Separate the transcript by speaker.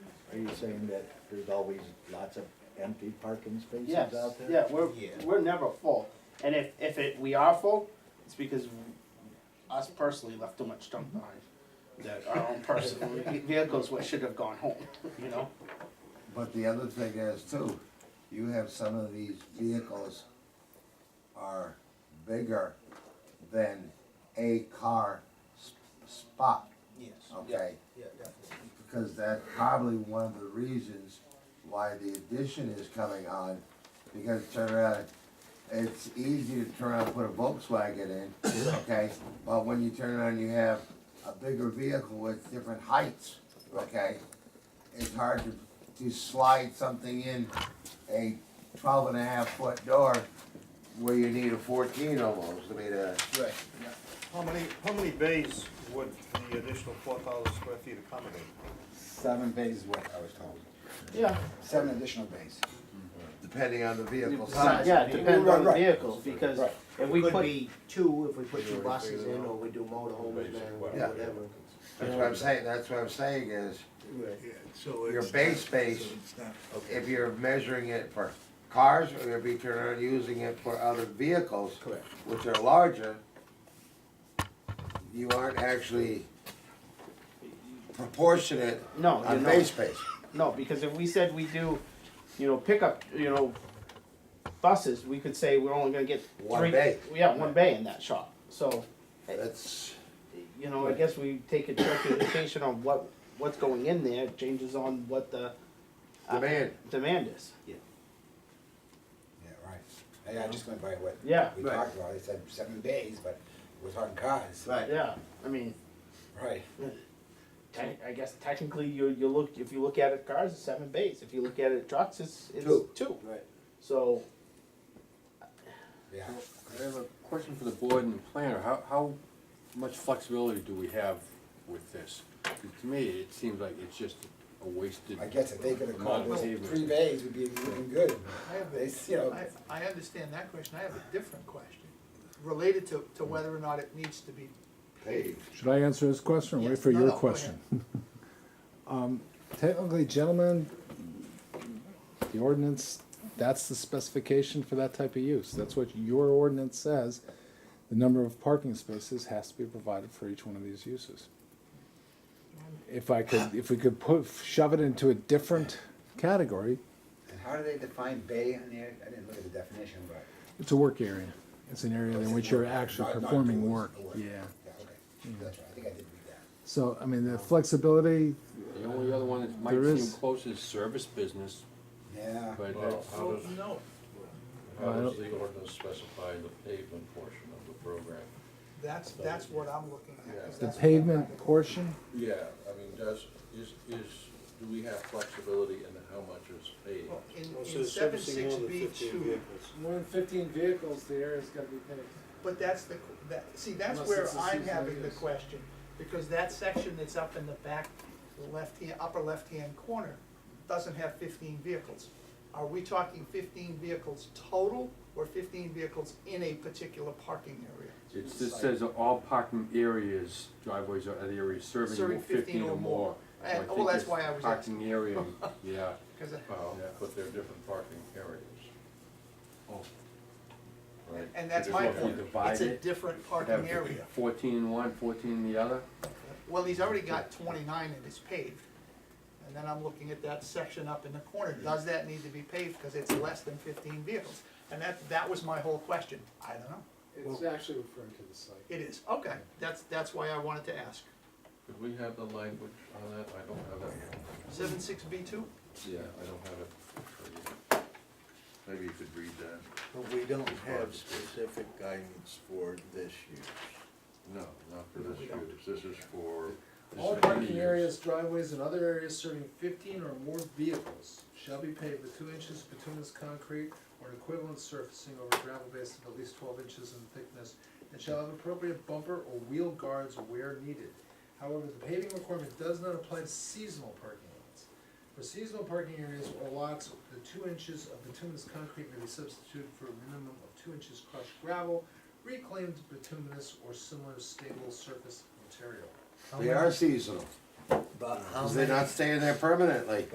Speaker 1: Are you saying that there's always lots of empty parking spaces
Speaker 2: Yes,
Speaker 1: out there?
Speaker 2: yeah, we're,
Speaker 3: Yeah.
Speaker 2: we're never full. And if, if it, we are full, it's because us personally left too much junk behind. That our own personal vehicles what should have gone home, you know?
Speaker 4: But the other thing is too, you have some of these vehicles are bigger than a car s- spot,
Speaker 3: Yes,
Speaker 4: okay?
Speaker 3: yeah, definitely.
Speaker 4: Because that's probably one of the reasons why the addition is coming on, because turn around, it's easy to turn around and put a Volkswagen in, okay? But when you turn around, you have a bigger vehicle with different heights, okay? It's hard to, to slide something in a twelve and a half foot door where you need a fourteen almost, I mean, uh,
Speaker 3: Right,
Speaker 5: How many, how many bays would the additional four thousand square feet accommodate?
Speaker 6: Seven bays is what I was told,
Speaker 2: Yeah,
Speaker 6: seven additional bays.
Speaker 4: depending on the vehicle
Speaker 3: Uh,
Speaker 4: size.
Speaker 2: yeah, it depends on the
Speaker 6: Right, right.
Speaker 2: vehicles, because
Speaker 6: Right.
Speaker 2: if we
Speaker 3: could
Speaker 2: put,
Speaker 3: be two, if we put two buses in, or we do motorhomes, man, or
Speaker 4: Yeah.
Speaker 3: whatever.
Speaker 4: That's what I'm saying, that's what I'm saying is,
Speaker 3: Right.
Speaker 5: So
Speaker 4: Your it's base not- space- so if you're measuring it for cars, or if you turn around using it for other vehicles,
Speaker 3: Correct.
Speaker 4: which are larger, you aren't actually proportionate
Speaker 2: no, you
Speaker 4: on
Speaker 2: know,
Speaker 4: base space.
Speaker 2: no, because if we said we do, you know, pickup, you know, buses, we could say we're only gonna get three.
Speaker 4: One bay.
Speaker 2: Yeah, one bay in that shop, so.
Speaker 4: That's,
Speaker 2: you know, I guess we take a direct indication on what, what's going in there, changes on what the. uh,
Speaker 4: Demand.
Speaker 2: Demand is,
Speaker 6: Yeah, right. Hey, I just went by what
Speaker 2: Yeah.
Speaker 6: we
Speaker 4: Right.
Speaker 6: talked about, they said seven bays, but we're talking cars.
Speaker 4: right,
Speaker 2: yeah, I mean,
Speaker 6: Right.
Speaker 2: te- I guess technically you, you look, if you look at it cars, it's seven bays, if you look at it trucks, it's, it's
Speaker 4: Two.
Speaker 2: two,
Speaker 3: Right.
Speaker 2: so.
Speaker 6: Yeah.
Speaker 7: I have a question for the board and planner. How, how much flexibility do we have with this? 'Cause To me, it seems like it's just a wasted.
Speaker 6: I guess if they could have
Speaker 7: amount
Speaker 6: called
Speaker 7: of
Speaker 6: us
Speaker 7: pavement.
Speaker 6: three bays, we'd be looking good.
Speaker 8: I have
Speaker 6: They,
Speaker 8: a,
Speaker 6: you know,
Speaker 8: I, I understand that question, I have a different question, related to, to whether or not it needs to be.
Speaker 4: paved.
Speaker 9: Should I answer his question or wait
Speaker 8: Yes.
Speaker 9: for
Speaker 8: No,
Speaker 9: your
Speaker 8: no, go
Speaker 9: question? Um, Technically, gentlemen, the ordinance, that's the specification for that type of use. That's what your ordinance says. The number of parking spaces has to be provided for each one of these uses. If I could, if we could put, shove it into a different category,
Speaker 6: how do they define bay on there? I didn't look at the definition, but.
Speaker 9: it's a work area. It's an area in which you're actually
Speaker 6: Not- not
Speaker 9: performing
Speaker 6: doing
Speaker 9: work,
Speaker 6: work.
Speaker 9: yeah.
Speaker 6: Yeah, okay. That's right, I think I did read that.
Speaker 9: So, I mean, the flexibility,
Speaker 7: The only other one that
Speaker 9: There
Speaker 7: might seem
Speaker 9: is-
Speaker 7: close is service business,
Speaker 6: Yeah.
Speaker 7: but that's.
Speaker 10: How does,
Speaker 8: No,
Speaker 10: how
Speaker 9: I
Speaker 10: does
Speaker 9: don't-
Speaker 10: the ordinance specify the pavement portion of the program?
Speaker 8: that's, that's what I'm looking at. 'cause
Speaker 9: the
Speaker 8: that's what
Speaker 9: pavement
Speaker 8: I'm-
Speaker 9: portion,
Speaker 10: Yeah, I mean, does, is, is, do we have flexibility in how much is paved?
Speaker 8: Well, In, in seven six B two,
Speaker 11: More than fifteen vehicles, the area's gotta be paved.
Speaker 8: but that's the, qu- that, see, that's
Speaker 11: Unless
Speaker 8: where
Speaker 11: it's a
Speaker 8: I'm
Speaker 11: seasonal
Speaker 8: having the
Speaker 11: use.
Speaker 8: question, because that section that's up in the back, left hand, upper left-hand corner, doesn't have fifteen vehicles. Are we talking fifteen vehicles total, or fifteen vehicles in a particular parking area?
Speaker 7: It just says that all parking areas, driveways or other areas serving
Speaker 8: Serving
Speaker 7: more fifteen or more. So I
Speaker 8: And- oh,
Speaker 7: think
Speaker 8: that's
Speaker 7: it's
Speaker 8: why I was
Speaker 7: Parking area, yeah. uh,
Speaker 8: 'Cause I-
Speaker 10: Well,
Speaker 7: Yeah.
Speaker 10: but they're different parking areas.
Speaker 7: Oh.
Speaker 10: Right.
Speaker 8: And that's
Speaker 7: Because
Speaker 8: my
Speaker 7: if you
Speaker 8: point,
Speaker 7: divide
Speaker 8: it's a
Speaker 7: it,
Speaker 8: different
Speaker 7: you'd
Speaker 8: parking
Speaker 7: have
Speaker 8: area.
Speaker 7: Fourteen in one, fourteen in the other.
Speaker 8: Well, he's already got twenty-nine and it's paved. And then I'm looking at that section up in the corner, does that need to be paved, because it's less than fifteen vehicles? And that, that was my whole question, I don't know,
Speaker 11: It's actually referring to the site.
Speaker 8: it is, okay, that's, that's why I wanted to ask.
Speaker 10: Could we have the language on that? I don't have it.
Speaker 8: Seven six B two,
Speaker 10: Yeah, I don't have it. Maybe you could read that.
Speaker 3: But we don't have specific guidance for this year.
Speaker 10: No, not for this
Speaker 8: We
Speaker 10: use.
Speaker 8: don't.
Speaker 10: This is for. this
Speaker 11: All
Speaker 10: is for
Speaker 11: parking
Speaker 10: use.
Speaker 11: areas, driveways, and other areas serving fifteen or more vehicles shall be paved with two inches of bituminous concrete or an equivalent surfacing over gravel base of at least twelve inches in thickness, and shall have appropriate bumper or wheel guards where needed. However, the paving requirement does not apply to seasonal parking lots. For seasonal parking areas or lots, the two inches of bituminous concrete may be substituted for a minimum of two inches crushed gravel, reclaimed bituminous or similar stable surface material.
Speaker 4: They are seasonal,
Speaker 3: But how
Speaker 4: because they're
Speaker 3: many
Speaker 4: not staying there permanently.